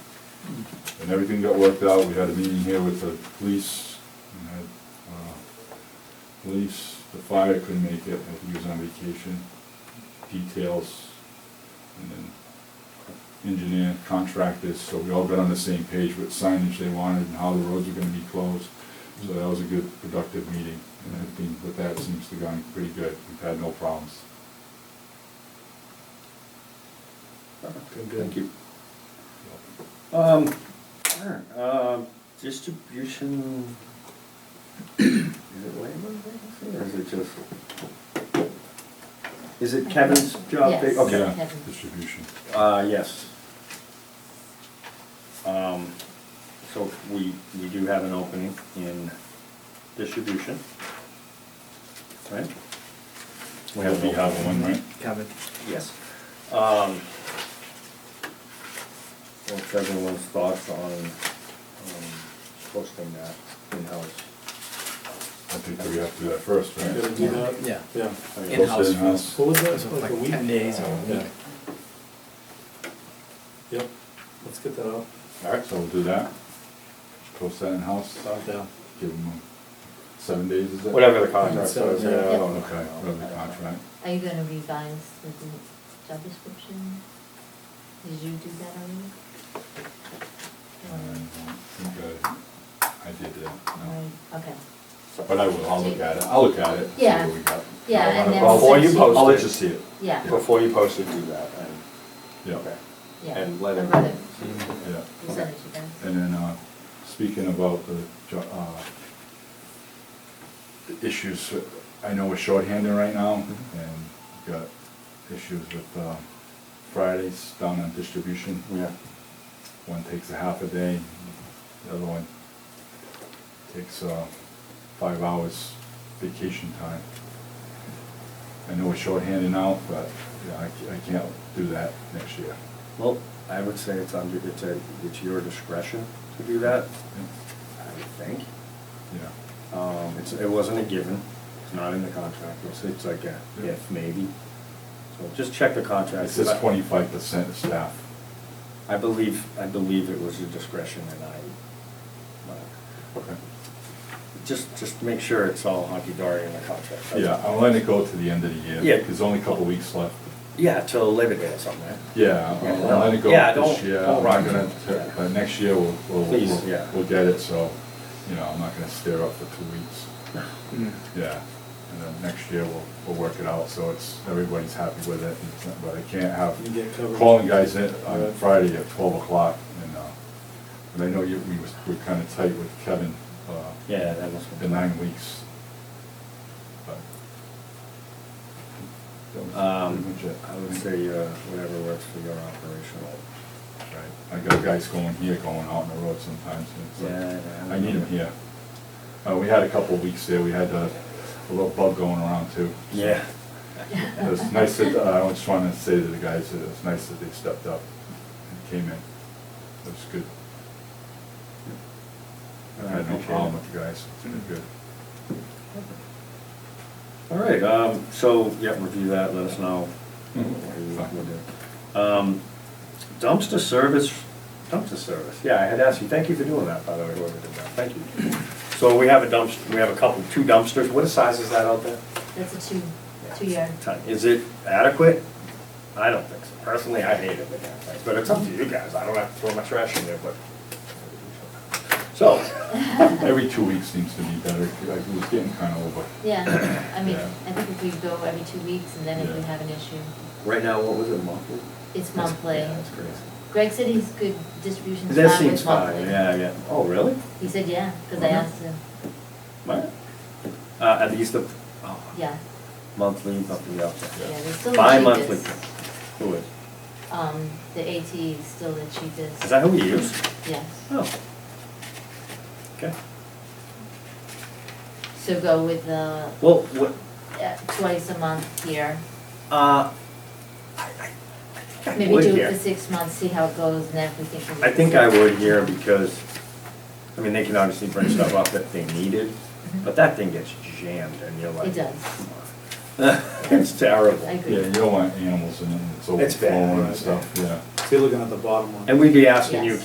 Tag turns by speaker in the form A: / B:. A: and everything got worked out. We had a meeting here with the police, and had, uh, police, the fire couldn't make it, I think he was on vacation, details, and then engineer, contractors, so we all got on the same page what signage they wanted and how the roads were gonna be closed. So that was a good, productive meeting, and everything with that seems to have gone pretty good. We've had no problems.
B: Thank you. Um, alright, um, distribution, is it labor vacancy, or is it just? Is it Kevin's job? vac-
C: Yes.
B: Okay,
A: Yeah, distribution.
B: uh, yes. Um, so we, we do have an opening in distribution. Right?
A: We have, we have one, right?
D: Kevin.
B: Yes. Um, What's everyone's thoughts on um, posting that in-house?
A: I think that we have to do that first, right?
E: Gotta do that?
D: Yeah.
E: Yeah.
B: I mean,
D: In-house.
A: Post it in-house.
E: What was
D: It
E: that,
D: was
E: like a
D: like
E: week?
D: ten days or a week.
E: Yeah. Yep, let's get that out.
A: All right, so we'll do that. Post that in-house,
E: Yeah.
A: give them seven days, is it? Oh,
B: Whatever the contract
E: Yeah.
B: says, yeah, I
A: Okay,
B: don't know.
A: whatever the contract.
C: Are you gonna revise the de- job description? Did you do that
A: I
C: already?
A: don't think uh, I, I did that, Uh, no.
C: Or- Okay,
A: But I will, I'll look at it, I'll look at it. see
C: Yeah.
A: what we got.
C: Yeah, and then
A: I'll-
B: Before you
C: since
B: post it.
A: I'll let you see it.
C: yeah,
B: Before you post it, do that, and,
A: Yeah,
B: okay.
C: yeah.
B: And let
C: I
B: it-
C: read it.
A: yeah.
C: You sent it to them?
A: And then, uh, speaking about the, jo- uh, the issues, I know we're shorthanded right now,
B: Mm-hmm.
A: and we've got issues with, uh, Fridays down on distribution.
B: Yeah.
A: One takes a half a day, the other one takes, uh, five hours vacation time. I know we're shorthanded now, but, yeah, I, ca- I can't do that next year.
B: Well, I would say it's under, it's a, it's your discretion to do that, I would think.
A: Yeah.
B: Um, it's, it wasn't a given, it's not in the contract, it's, it's like a
A: Yeah.
B: if, maybe. So just check the contract.
A: It says
B: I-
A: twenty-five percent of staff.
B: I believe, I believe it was a discretion and I,
A: Okay.
B: just, just make sure it's all hunky-dory in the contract. That's-
A: Yeah, I'm letting it go to the end of the year.
B: Yeah.
A: There's only a couple weeks left.
B: Yeah, till Labor Day or something, right?
A: Yeah,
B: Yeah,
A: I'll
B: no.
A: let it go
B: Yeah,
A: this
B: don't-
A: year.
B: don't
A: I'm
B: rock
A: not gonna,
B: it.
A: t-
B: Yeah.
A: but next year we'll, we'll,
B: Please,
A: we'll-
B: yeah.
A: we'll get it, so, you know, I'm not gonna stare up for two weeks.
D: Mm.
A: Yeah, and then next year we'll, we'll work it out, so it's, everybody's happy with it, and it's- but I can't have
E: You get covered.
A: calling guys in on
E: Right.
A: Friday at twelve o'clock, and, uh, and I know you, we was, we're kinda tight with Kevin, uh,
B: Yeah, that must
A: the
B: be.
A: nine weeks. But That was
B: Um,
A: pretty much it.
B: I would say, uh, whatever works for your operational.
A: Right. I got guys going here, going out on the road sometimes, and it's
B: Yeah,
A: like,
B: yeah.
A: I need them here. Uh, we had a couple of weeks there, we had a, a little bug going around too. so
B: Yeah.
A: It was nice that, uh, I just wanted to say to the guys, that it was nice that they stepped up and came in. It was good. I had no
B: Appreciate it.
A: problem with the guys, it's been good.
B: All right, um, so, yeah, review that, let us know.
A: Mhm.
B: what you want to do. Um, dumpster service, dumpster service, yeah, I had asked you, thank you for doing that, by the way, whoever did that, thank you. So we have a dumpster, we have a couple, two dumpsters, what size is that out there?
C: That's a two, two yard.
B: Ton. Is it adequate? I don't think so, personally, I hate it when that happens, but it's up to you guys, I don't have to throw my trash in there, but. So,
A: Every two weeks seems to be better, like, it was getting kinda over.
C: Yeah, I mean,
A: Yeah.
C: I think if we go every two weeks and then if we
A: Yeah.
C: have an issue,
B: right now, what was it, monthly?
C: it's monthly.
B: Yeah, That's crazy.
C: Greg said he's good distribution's
B: That
C: fine with
B: seems
C: monthly.
B: fine, yeah, yeah, oh, really?
C: He said, yeah, because I
A: Uh-huh.
B: Mhm.
C: asked him,
B: Right. Uh, at least the, oh,
C: yeah,
B: monthly, monthly, yeah.
C: yeah, they're still the cheapest.
B: Bi-monthly. Who is?
C: Um, the AT is still the cheapest.
B: Is that who we use?
C: Yes.
B: Oh. Okay.
C: So go with the,
B: Well, what,
C: uh, twice a month here.
B: uh, I, I, I think I
C: Maybe
B: would
C: do
B: here.
C: it for six months, see how it goes, and then if we think we need.
B: I
C: to-
B: think I would here because, I mean, they can obviously bring stuff up that they needed, but that thing gets jammed and you're like.
C: Mm-hmm. It does.
B: does. It's terrible.
C: I agree.
A: Yeah, you don't want animals and it's
B: It's bad,
A: overflowing
B: right.
A: and stuff, yeah.
E: So you're looking at the bottom one.
B: And we'd be asking you,
C: Yes.